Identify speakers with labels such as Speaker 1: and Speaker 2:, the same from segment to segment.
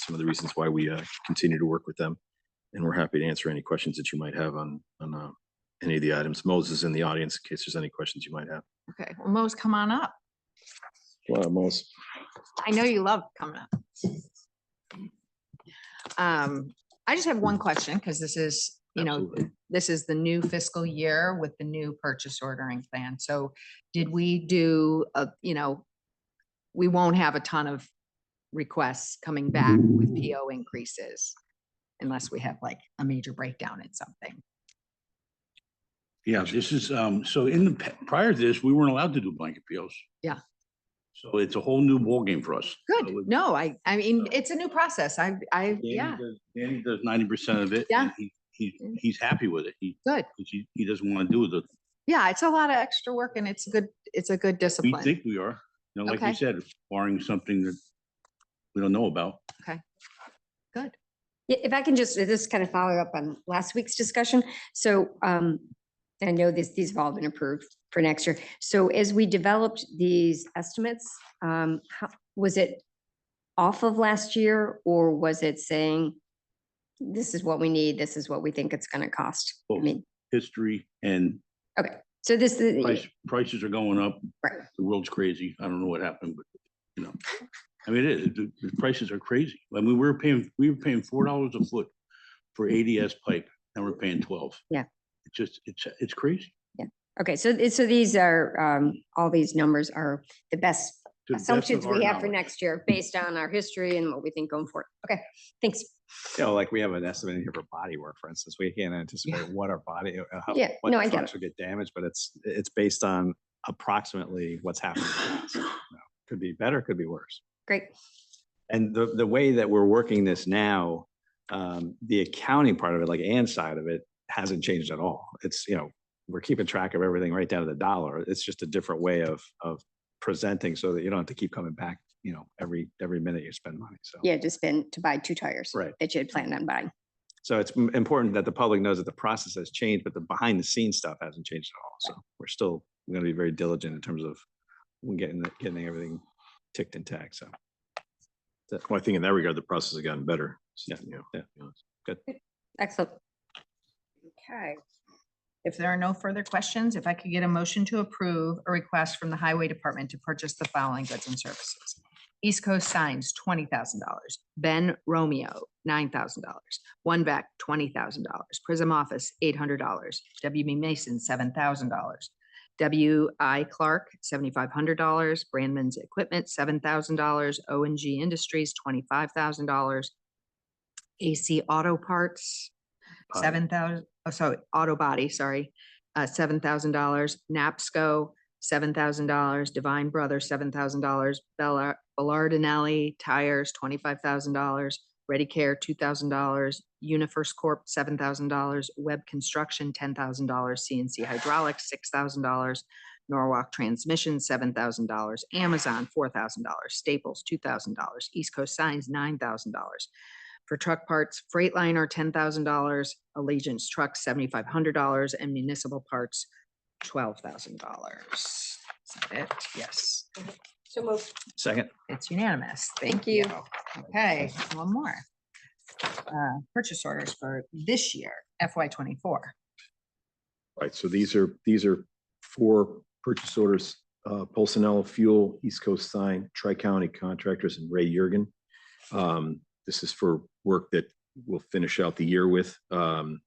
Speaker 1: some of the reasons why we uh, continue to work with them. And we're happy to answer any questions that you might have on, on uh, any of the items. Moses is in the audience in case there's any questions you might have.
Speaker 2: Okay, well, Mo's, come on up.
Speaker 1: Wow, Moses.
Speaker 2: I know you love coming up. Um, I just have one question because this is, you know,
Speaker 1: Absolutely.
Speaker 2: this is the new fiscal year with the new purchase ordering plan. So did we do, a you know, we won't have a ton of requests coming back with PO increases unless we have like a major breakdown in something.
Speaker 3: Yeah, this is, um, so in the, pa- prior to this, we weren't allowed to do blanket POs.
Speaker 2: Yeah.
Speaker 3: So it's a whole new ballgame for us.
Speaker 2: Good. No, I, I mean, it's a new process. I, I, yeah,
Speaker 3: Danny does ninety percent of it.
Speaker 2: Yeah.
Speaker 3: and He, he, he's happy with it. He,
Speaker 2: good.
Speaker 3: 'cause he, he doesn't want to do the,
Speaker 2: Yeah, it's a lot of extra work and it's a good, it's a good
Speaker 3: we
Speaker 2: discipline.
Speaker 3: think we are, you know, like
Speaker 2: Okay.
Speaker 3: you said, barring something that we don't know about.
Speaker 2: Good.
Speaker 4: Yeah, if I can just, this kind of follow up on last week's discussion. So um, I know this, these have all been approved for next year. So as we developed these estimates, um, how, was it off of last year or was it saying, this is what we need, this is what we think it's going to cost? I
Speaker 3: Both.
Speaker 4: mean,
Speaker 3: History and
Speaker 4: okay, so this is,
Speaker 3: price, prices are going up.
Speaker 4: Right.
Speaker 3: The world's crazy. I don't know what happened, but, you know, I mean, it is, the, the prices are crazy. I mean, we were paying, we were paying four dollars a foot for ADS pipe, now we're paying twelve.
Speaker 4: Yeah.
Speaker 3: It's just, it's, it's crazy.
Speaker 4: okay, so, th- so these are, um, all these numbers are the best
Speaker 3: to the best of
Speaker 4: assumptions
Speaker 3: our
Speaker 4: we have for
Speaker 3: knowledge.
Speaker 4: next year based on our history and what we think going forward. Okay, thanks.
Speaker 5: you know, like we have an estimate here for body work, for instance, we can't anticipate what our body, uh, how,
Speaker 4: Yeah,
Speaker 5: what
Speaker 4: no, I get
Speaker 5: trucks will get damaged, but it's, it's based on approximately what's happening. to us, you know. Could be better, could be worse.
Speaker 4: Great.
Speaker 5: And the, the way that we're working this now, um, the accounting part of it, like and side of it, hasn't changed at all. It's, you know, we're keeping track of everything right down to the dollar. It's just a different way of, of presenting so that you don't have to keep coming back, you know, every, every minute you spend money, so.
Speaker 4: Yeah, just been to buy two tires.
Speaker 5: Right.
Speaker 4: That you had planned on buying.
Speaker 5: So it's m- important that the public knows that the process has changed, but the behind the scenes stuff hasn't changed at all. So we're still going to be very diligent in terms of we getting, the- getting everything ticked and tagged. So
Speaker 1: Well, I think in that regard, the process has gotten better. so,
Speaker 5: Yeah,
Speaker 1: you know,
Speaker 5: yeah.
Speaker 1: to be honest.
Speaker 4: Excellent.
Speaker 2: Okay. If there are no further questions, if I could get a motion to approve a request from the Highway Department to purchase the following goods and services. East Coast Signs, twenty thousand dollars. Ben Romeo, nine thousand dollars. One Back, twenty thousand dollars. Prism Office, eight hundred dollars. WB Mason, seven thousand dollars. W.I. Clark, seventy-five hundred dollars. Brandman's Equipment, seven thousand dollars. O and G Industries, twenty-five thousand dollars. AC Auto Parts,
Speaker 1: Body.
Speaker 2: seven thousand, oh, sorry, auto body, sorry, uh, seven thousand dollars, NAPSCO, seven thousand dollars, Divine Brothers, seven thousand dollars, Bella, Bellardinelli Tires, twenty-five thousand dollars, Ready Care, two thousand dollars, UniFirst Corp, seven thousand dollars, Web Construction, ten thousand dollars, CNC Hydraulics, six thousand dollars, Norwalk Transmission, seven thousand dollars, Amazon, four thousand dollars, Staples, two thousand dollars, East Coast Signs, nine thousand dollars, for truck parts, Freightliner, ten thousand dollars, Allegiance Truck, seventy-five hundred dollars, and municipal parts, twelve thousand dollars. Is that it? Yes,
Speaker 4: So moved.
Speaker 5: second,
Speaker 2: it's unanimous. Thank
Speaker 4: Thank
Speaker 2: you.
Speaker 4: you.
Speaker 2: Okay, one more. Uh, Purchase orders for this year, FY twenty-four.
Speaker 1: Right, so these are, these are four purchase orders, uh, Pulsanella Fuel, East Coast Sign, Tri-County Contractors, and Ray Jurgen. Um, this is for work that we'll finish out the year with. Um,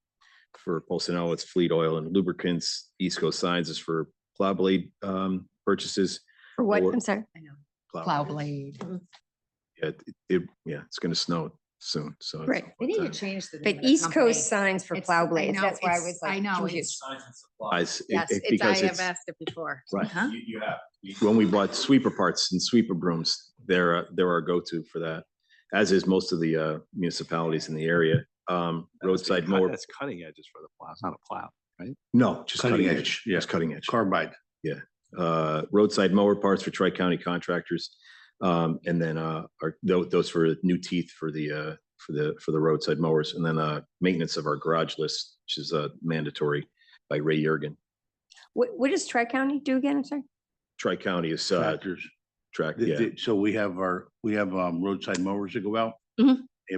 Speaker 1: for Pulsanella, it's fleet oil and lubricants. East Coast Signs is for plow blade, um, purchases.
Speaker 4: For what?
Speaker 1: Or-
Speaker 4: I'm sorry.
Speaker 2: I know. Plow blade.
Speaker 1: Yeah, it- it, yeah, it's gonna snow soon, so. it's
Speaker 4: Right.
Speaker 2: They need to
Speaker 1: about time.
Speaker 2: change the.
Speaker 4: But
Speaker 2: name of the
Speaker 4: East
Speaker 2: company.
Speaker 4: Coast signs for
Speaker 2: It's-
Speaker 4: plow
Speaker 2: I
Speaker 4: blades.
Speaker 2: know,
Speaker 4: That's why I
Speaker 2: it's-
Speaker 4: was
Speaker 2: I
Speaker 4: like
Speaker 2: know,
Speaker 4: confused.
Speaker 6: Signs and
Speaker 1: Guys, it-
Speaker 2: Yes,
Speaker 1: it-
Speaker 2: it's, I
Speaker 1: because
Speaker 2: have
Speaker 1: it's-
Speaker 2: asked it before.
Speaker 1: Right.
Speaker 2: Uh-huh.
Speaker 6: You, you have, we-
Speaker 1: when we bought sweeper parts and sweeper brooms, they're, uh, they're our go-to for that, as is most of the uh, municipalities in the area. Um,
Speaker 5: that must be
Speaker 1: Roadside
Speaker 5: cut-
Speaker 1: mower,
Speaker 5: That's cutting edges for the plow. It's not a plow.
Speaker 1: no, just
Speaker 3: Cutting
Speaker 1: cutting
Speaker 3: edge,
Speaker 1: edge,
Speaker 3: yeah.
Speaker 1: yes, cutting edge.
Speaker 3: Carbide.
Speaker 1: Uh, roadside mower parts for tri-county contractors. Um, and then, uh, our, tho- those for new teeth for the, uh, for the, for the roadside mowers. And then, uh, maintenance of our garage list, which is, uh, mandatory by Ray Yergin.
Speaker 4: What, what does Tri-County do again? I'm sorry.
Speaker 1: Tri-county is, uh,
Speaker 3: tractors.
Speaker 1: track,
Speaker 3: The-
Speaker 1: yeah,
Speaker 3: the- So we have our, we have um, roadside mowers that go out.
Speaker 4: Mhm.